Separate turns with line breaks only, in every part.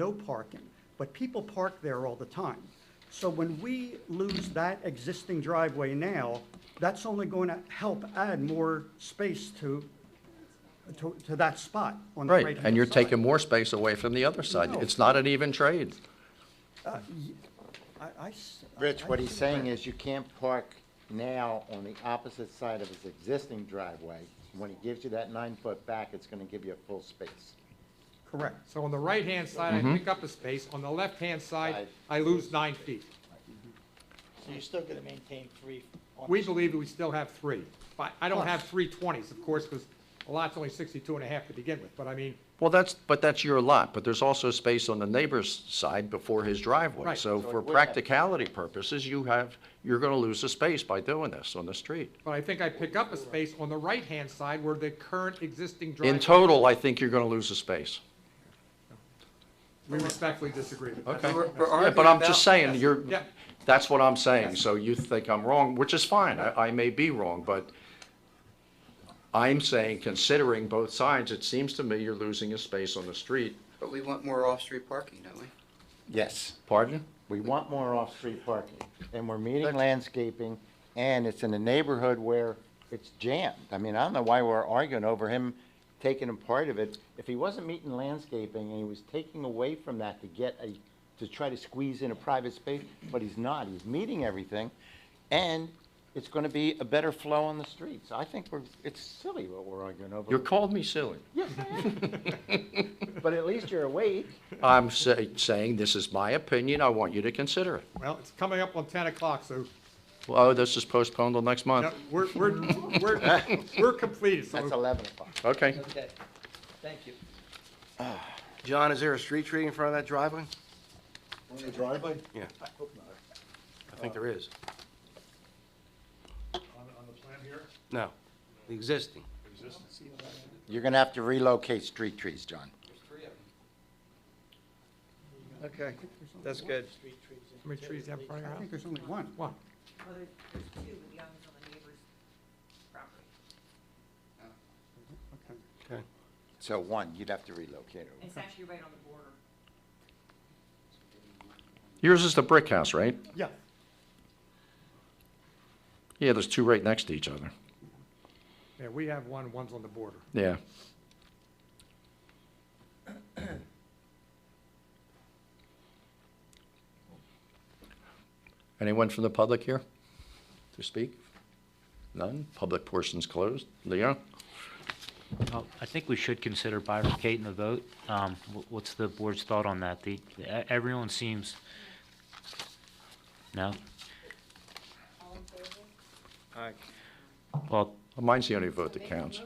no parking, but people park there all the time. So when we lose that existing driveway now, that's only going to help add more space to, to, to that spot on the right
Right, and you're taking more space away from the other side.
No.
It's not an even trade.
Rich, what he's saying is you can't park now on the opposite side of his existing driveway. When he gives you that nine-foot back, it's gonna give you a full space.
Correct.
So on the right-hand side,
Mm-hmm.
I pick up a space, on the left-hand side, I lose nine feet.
So you're still gonna maintain three? on
We
the-
believe that we still have three, but I don't have three twenties, of course, because a lot's only 62 and a half to begin with, but I mean,
Well, that's, but that's your lot, but there's also space on the neighbor's side before his driveway.
Right.
So
So it
for
would have-
practicality purposes, you have, you're gonna lose a space by doing this on the street.
but I think I pick up a space on the right-hand side where the current existing driveway.
In total, I think you're gonna lose a space.
We respectfully disagree. but that's-
Okay. Yeah, But I'm just saying, you're,
Yeah.
that's what I'm saying. So you think I'm wrong, which is fine. I, I may be wrong, but I'm saying, considering both sides, it seems to me you're losing a space on the street.
But we want more off-street parking, don't we?
Yes.
Pardon?
We want more off-street parking, and we're meeting landscaping, and it's in a neighborhood where it's jammed. I mean, I don't know why we're arguing over him taking a part of it. If he wasn't meeting landscaping and he was taking away from that to get a, to try to squeeze in a private space, but he's not, he's meeting everything, and it's gonna be a better flow on the streets. I think we're, it's silly what we're arguing over.
You called me silly.
Yes, I am. But at least you're awake.
I'm sa- saying, this is my opinion, I want you to consider it.
Well, it's coming up on 10 o'clock, so
Oh, this is postponed till next
no,
month.
we're, we're, we're, we're completed,
That's
so
eleven o'clock.
Okay.
Okay, thank you.
John, is there a street tree in front of that driveway?
On the driveway?
Yeah.
I hope not.
I think there is.
On, on the plan here,
No, the existing.
existence.
You're gonna have to relocate street trees, John.
Okay, that's good.
Street trees and-
how many trees do you have in front
I
of your house?
think there's only one.
One.
Well, there's, there's two, but the other one's on the neighbor's property.
Okay.
So one, you'd have to relocate
And
it.
it's actually right on the border.
Yours is the brick house, right?
Yeah,
Yeah, there's two right next to each other.
Yeah, we have one, one's on the border.
Yeah. Anyone from the public here to speak? None? Public portion's closed. Leo?
Well, I think we should consider bifurcating the vote. Um, wh- What's the board's thought on that? The, the- e- everyone seems, no? Well,
Mine's the only vote that counts.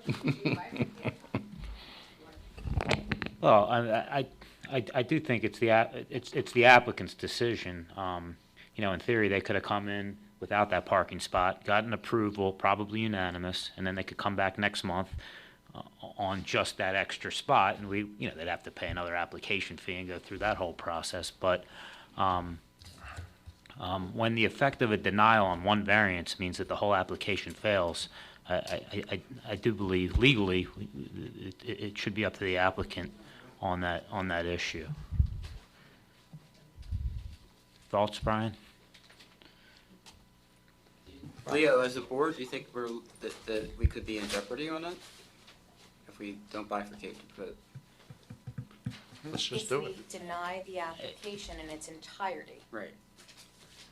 well, I, I, I- I do think it's the, a- it's, it's the applicant's decision. Um, You know, in theory, they could have come in without that parking spot, gotten approval, probably unanimous, and then they could come back next month uh, on just that extra spot, and we, you know, they'd have to pay another application fee and go through that whole process, but, um, um, when the effect of a denial on one variance means that the whole application fails, I, I, I, I do believe legally, it, it- it should be up to the applicant on that, on that issue. Thoughts, Brian?
Leo, as a board, do you think we're, that, that we could be in jeopardy on it? If we don't bifurcate the vote?
Let's just do it.
If we deny the application in its entirety,
Right.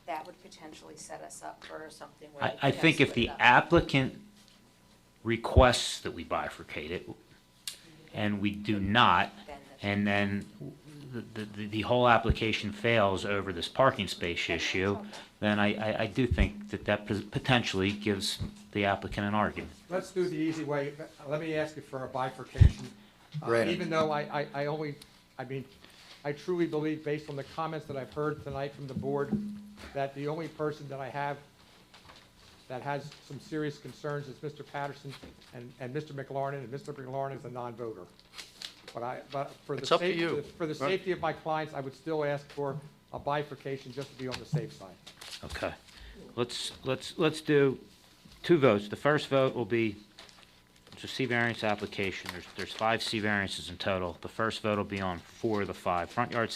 that would potentially set us up for something where.
I,
we
I
could have
think if
split
the
up.
applicant requests that we bifurcate it, and we do not, and then the, the, the whole application fails over this parking space issue, then I, I, I do think that that pos- potentially gives the applicant an argument.
Let's do the easy way. Let me ask you for a bifurcation. Uh,
Brandon.
Even though I, I, I only, I mean, I truly believe, based on the comments that I've heard tonight from the board, that the only person that I have that has some serious concerns is Mr. Patterson and, and Mr. McLaurin, and Mr. McLaurin is a non-voter. But I, but for the
It's up to
safety,
you.
for the safety of my clients, I would still ask for a bifurcation just to be on the safe side.
Okay. Let's, let's, let's do two votes. The first vote will be, it's a C variance application. There's, there's five C variances in total. The first vote will be on four of the five, front yard